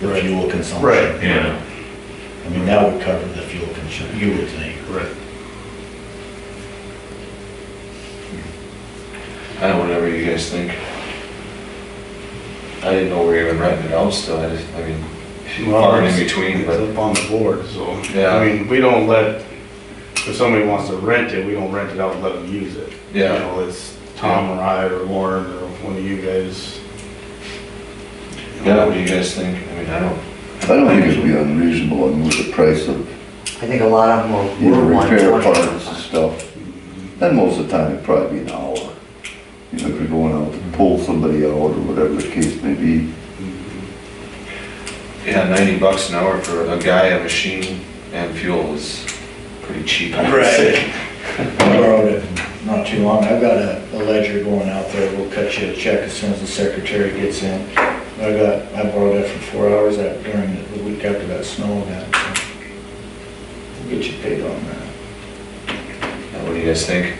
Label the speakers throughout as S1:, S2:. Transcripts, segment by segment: S1: the
S2: Right.
S1: fuel consumption.
S2: Right,
S3: yeah.
S1: I mean, that would cover the fuel consumption, you would think.
S2: Right.
S4: I don't know, whatever you guys think. I didn't know we were even writing it out still, I just, I mean, far in between,
S2: It's
S4: but,
S2: up on the board, so,
S4: Yeah.
S2: I mean, we don't let, if somebody wants to rent it, we don't rent it out and let them use it.
S4: Yeah.
S2: You know, it's Tom or I or Lauren or one of you guys.
S4: yeah, what do you guys think? I mean, I don't,
S5: I don't think it'd be unreasonable and with the price of,
S6: I think a lot of them
S5: you
S6: will.
S5: know,
S6: will want
S5: repair
S6: 20.
S5: parts and stuff. And most of the time, it'd probably be an hour. You know, if you're going out to pull somebody out or whatever the case may be.
S4: yeah, ninety bucks an hour for a guy, a machine, and fuel is pretty cheap, I would say.
S1: I borrowed it not too long, I've got a a ledger going out there, we'll cut you a check as soon as the secretary gets in. I got, I borrowed that for four hours that during the- the week after that snow event. so We'll get you paid on that.
S4: Yeah, What do you guys think?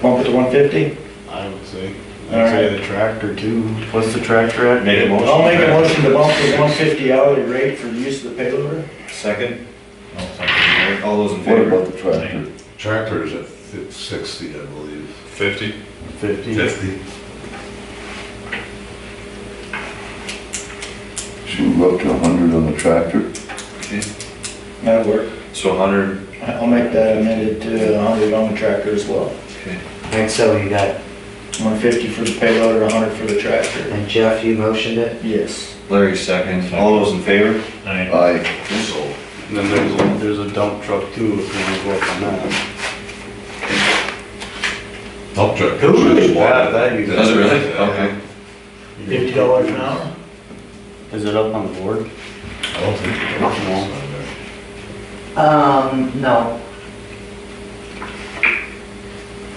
S1: Bump it to one fifty?
S2: I would say,
S1: All
S2: I'd say the tractor too. What's the tractor at?
S4: Make a motion.
S1: I'll make a motion to bump the one fifty hourly rate for the use of the payloader.
S4: Second? Oh, All those in
S5: What
S4: favor?
S5: about the tractor?
S7: Tractor's at fi- sixty, I believe.
S3: Fifty?
S2: Fifty.
S3: Fifty.
S5: Should we go up to a hundred on the tractor?
S1: That'll work.
S4: So hundred,
S1: I'll make that amended to hundred on the tractor as well.
S6: And so you got,
S1: One fifty for the payloader, hundred for the tractor.
S6: and Jeff, you motioned it?
S1: Yes.
S4: Larry second, all those in favor?
S5: Aye.
S4: So,
S2: And then there's, a- there's a dump truck too, if you want to go up on that.
S7: Dump truck.
S2: That, that you guys-
S4: Does it really? Okay.
S1: Fifty dollars an hour?
S2: Is it up on the board?
S7: I don't think it works on there.
S6: Um, no.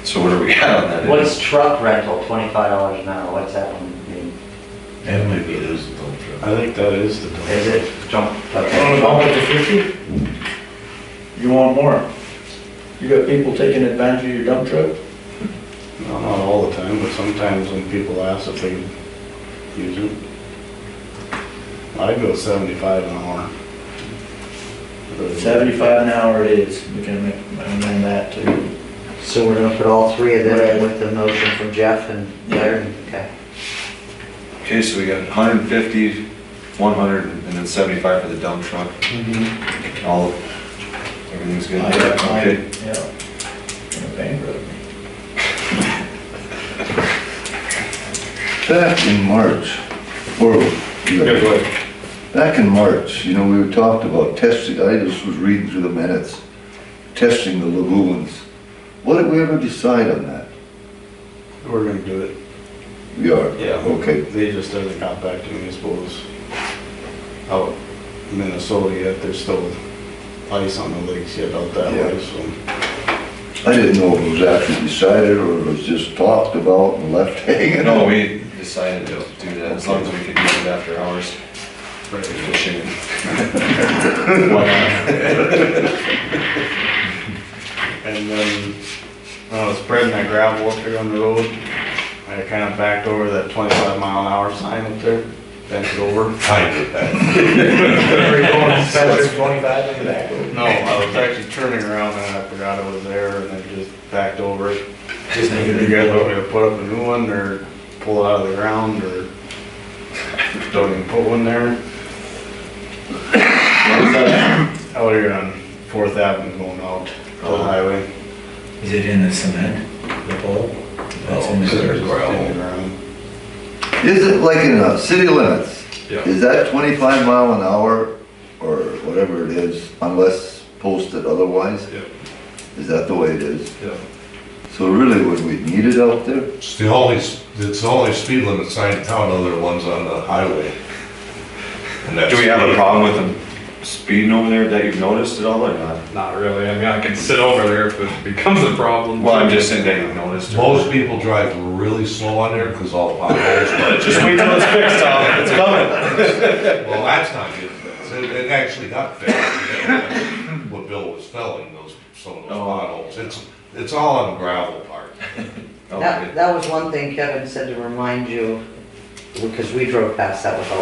S4: So what do we got on that?
S6: What's truck rental, twenty-five dollars an hour, what's that one mean?
S7: And maybe it is a dump truck.
S2: I think that is the dump.
S6: Is it jump?
S1: Want to
S6: Okay.
S1: bump it to fifty? You want more? You got people taking advantage of your dump truck?
S2: No, Not all the time, but sometimes when people ask if they use it. I'd go seventy-five an hour.
S1: Seventy-five an hour it is. We can make, amend that to
S6: So we're gonna put all three of them in with the motion from Jeff and Larry, okay?
S4: Okay, so we got 150, 100, and then 75 for the dump truck. All, everything's good?
S1: Mm-hmm. I got mine,
S4: Okay.
S1: yeah. Gonna bankrupt me.
S5: Back in March, or, back in March, you know, we were talked about testing, I just was reading through the minutes, testing the lagoons. What did we ever decide on that?
S2: We're gonna do it.
S5: We are?
S2: Yeah.
S5: Okay.
S2: They just haven't got back to me, I suppose. Out in Minnesota yet, there's still ice on the lakes yet out that way, so.
S5: I didn't know if it was actually decided or it was just talked about and left hanging
S4: No,
S5: out.
S4: we decided to do that, as long as we could do it after hours, fishing. Why
S2: And then, when I was spreading that gravel up here on the road, I kinda backed over that twenty-five mile an hour sign up there, bent it over.
S7: I did that.
S1: Where you going, Spencer, twenty-five in the back?
S2: No, I was actually turning around and I forgot I was there and then just backed over it.
S1: Just
S2: Did you guys want me to put up a new one or pull it out of the ground or don't even put one there? Out here Oh, on Fourth Avenue going out to
S7: Oh.
S2: the highway.
S1: Is it in the cement, the pole? That's in
S7: Is there
S1: the,
S2: Turning
S7: gravel?
S2: around.
S5: Is it like in uh, city limits?
S7: Yeah.
S5: Is that twenty-five mile an hour or whatever it is unless posted otherwise?
S7: Yeah.
S5: Is that the way it is?
S7: Yeah.
S5: So really, would we need it out there?
S7: It's the only, it's the only speed limit sign in town, other ones on the highway. And
S4: not?
S7: that's-
S4: Do we have a problem with them speeding over there that you've noticed at all or not?
S3: Not really, I mean, I can sit over there if it becomes a problem.
S4: Well, I'm just saying that you've noticed.
S7: Most people drive really slow on there because all the potholes.
S4: Just wait till it's fixed, Tom, it's coming.
S7: Well, that's not good. fixed. It, it actually got fixed. What Bill was telling, those, some of those
S4: Oh.
S7: potholes. It's, it's all on the gravel part.
S4: Okay.
S6: That, that was one thing Kevin said to remind you, because we drove past that with all